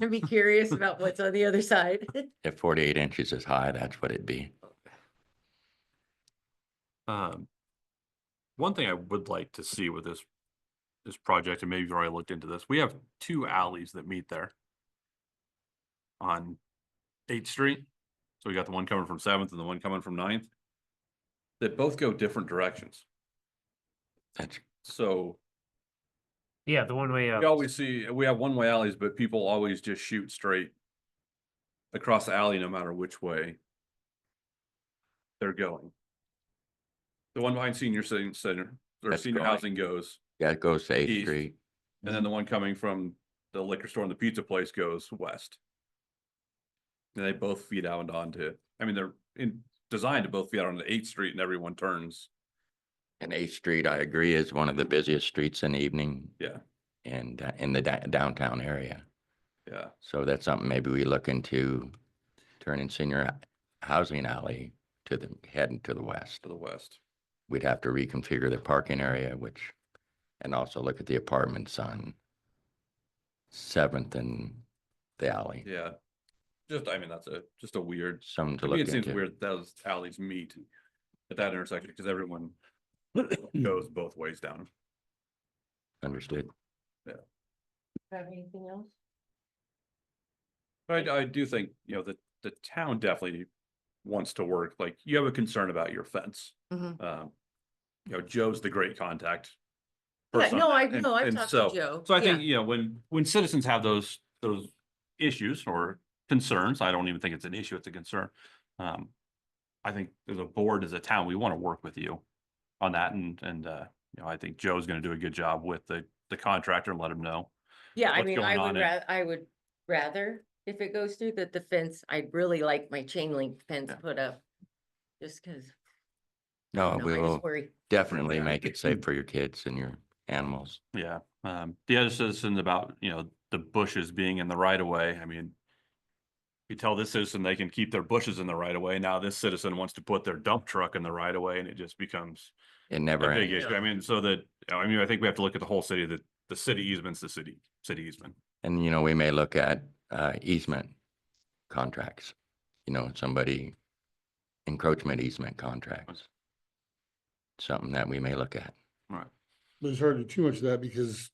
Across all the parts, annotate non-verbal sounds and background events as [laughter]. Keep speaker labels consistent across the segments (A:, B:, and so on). A: I'd be curious about what's on the other side. [laughs]
B: If forty-eight inches is high, that's what it'd be.
C: [laughs] Um, one thing I would like to see with this, this project, and maybe you've already looked into this, we have two alleys that meet there. On Eighth Street, so we got the one coming from Seventh and the one coming from Ninth. That both go different directions,
B: That's,
C: so
D: Yeah, the one way up.
C: we always see, we have one-way alleys, but people always just shoot straight. Across the alley, no matter which way. They're going. The one behind senior cen- center, or
B: That's
C: senior
B: going.
C: housing goes.
B: yeah, it goes to Eighth
C: East.
B: Street.
C: And then the one coming from the liquor store and the pizza place goes west. And they both feed out onto, I mean, they're in, designed to both feed out onto Eighth Street and everyone turns.
B: And Eighth Street, I agree, is one of the busiest streets in the evening.
C: Yeah.
B: And uh, in the da- downtown area.
C: Yeah,
B: So that's something maybe we look into turning senior h- housing alley to the, heading to the west.
C: to the west.
B: We'd have to reconfigure the parking area, which, and also look at the apartments on Seventh and the alley.
C: Yeah. Just, I mean, that's a, just a weird,
B: Something
C: to
B: to
C: me,
B: look
C: it seems
B: into.
C: weird that those alleys meet at that intersection because everyone [coughs] goes both ways down.
B: Understood.
A: Have anything else?
C: But I do think, you know, the, the town definitely wants to work, like, you have a concern about your fence.
A: Mhm.
C: Um, You know, Joe's the great contact.
A: Yeah,
C: person
A: no, I
C: on that,
A: know,
C: and-
A: I've
C: and
A: talked
C: so-
A: to Joe.
C: So I
A: Yeah.
C: think, you know, when, when citizens have those, those issues or concerns, I don't even think it's an issue, it's a concern. Um, I think as a board, as a town, we want to work with you on that and, and, uh, you know, I think Joe's going to do a good job with the, the contractor and let him know.
A: Yeah, I
C: what's
A: mean,
C: going
A: I
C: on
A: would
C: and-
A: ra- I would rather, if it goes through that the fence, I'd really like my chain link fence
C: Yeah.
A: put up. Just cause, you
B: No,
A: know,
B: we
A: I
B: will
A: just worry.
B: definitely make it safe for your kids and your animals.
C: Yeah, um, the other citizens about, you know, the bushes being in the right of way, I mean. You tell this citizen they can keep their bushes in the right of way, now this citizen wants to put their dump truck in the right of way and it just becomes.
B: It
C: A
B: never
C: big
B: ends.
C: issue, I mean, so that, I mean, I think we have to look at the whole city, that the city easements, the city, city easement.
B: And, you know, we may look at uh, easement contracts, you know, somebody encroachment easement contracts. Something that we may look at.
E: But it's hard to do too much of that because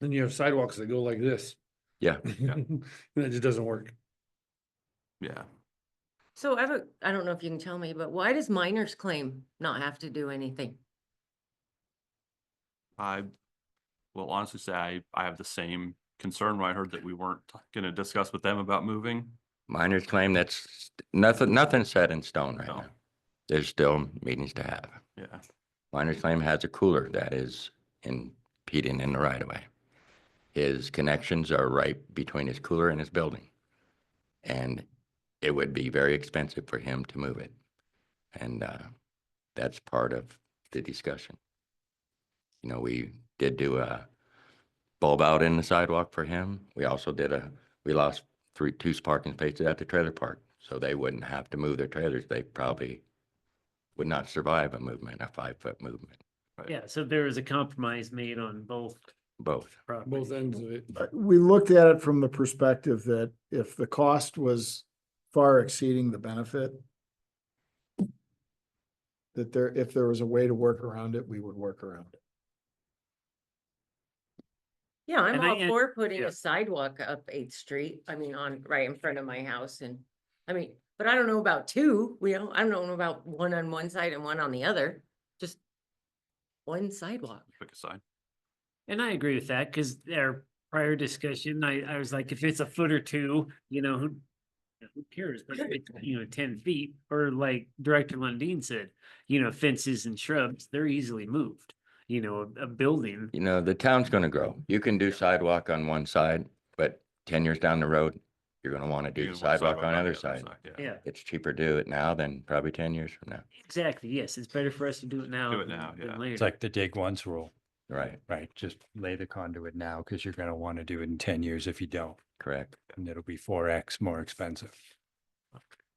E: then you have sidewalks that go like this.
B: Yeah.
E: [laughs] And it just doesn't work.
C: Yeah.
A: So I have a, I don't know if you can tell me, but why does minors claim not have to do anything?
C: I will honestly say I, I have the same concern when I heard that we weren't gonna discuss with them about moving.
B: Miners claim that's nothing, nothing set in stone right
C: No.
B: now. There's still meetings to have.
C: Yeah,
B: Miners claim has a cooler that is impeding in the right of way. His connections are right between his cooler and his building. And it would be very expensive for him to move it. And uh, that's part of the discussion. You know, we did do a bulb out in the sidewalk for him. We also did a, we lost three, two parking spaces at the trailer park. So they wouldn't have to move their trailers. They probably would not survive a movement, a five foot movement,
D: Yeah, so there was a compromise made on both
B: both.
E: Both
D: properties.
E: ends of it.
F: But we looked at it from the perspective that if the cost was far exceeding the benefit, that there, if there was a way to work around it, we would work around it.
A: Yeah, I'm
D: And I-
A: all
D: and-
A: for putting
D: yeah.
A: a sidewalk up Eighth Street, I mean, on, right in front of my house and, I mean, but I don't know about two, we don't, I don't know about one on one side and one on the other, just one sidewalk.
C: pick a side.
D: And I agree with that, because our prior discussion, I, I was like, if it's a foot or two, you know, who who cares, but if it's, you know, ten feet, or like Director Lundin said, you know, fences and shrubs, they're easily moved. You know, a a building,
B: You know, the town's gonna grow. You can do sidewalk on one side, but ten years down the road, you're gonna wanna
C: You
B: do
C: can walk
B: sidewalk on the
C: the
B: other side.
C: Yeah,
D: yeah,
B: It's cheaper to do it now than probably ten years from now.
D: exactly, yes, it's better for us to do it now.
C: Do it
D: than-
C: now,
D: than
C: yeah. It's
G: It's
D: later.
G: like the dig once rule,
B: Right,
G: right? Just lay the conduit now because you're going to want to do it in 10 years if you don't,
B: correct.
G: and it'll be 4X more expensive.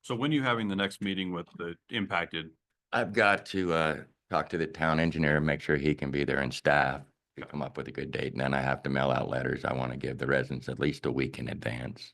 C: so when are you having the next meeting with the impacted
B: I've got to uh talk to the town engineer and make sure he can be there and staff. come up with a good date, and then I have to mail out letters. I want to give the residents at least a week in advance.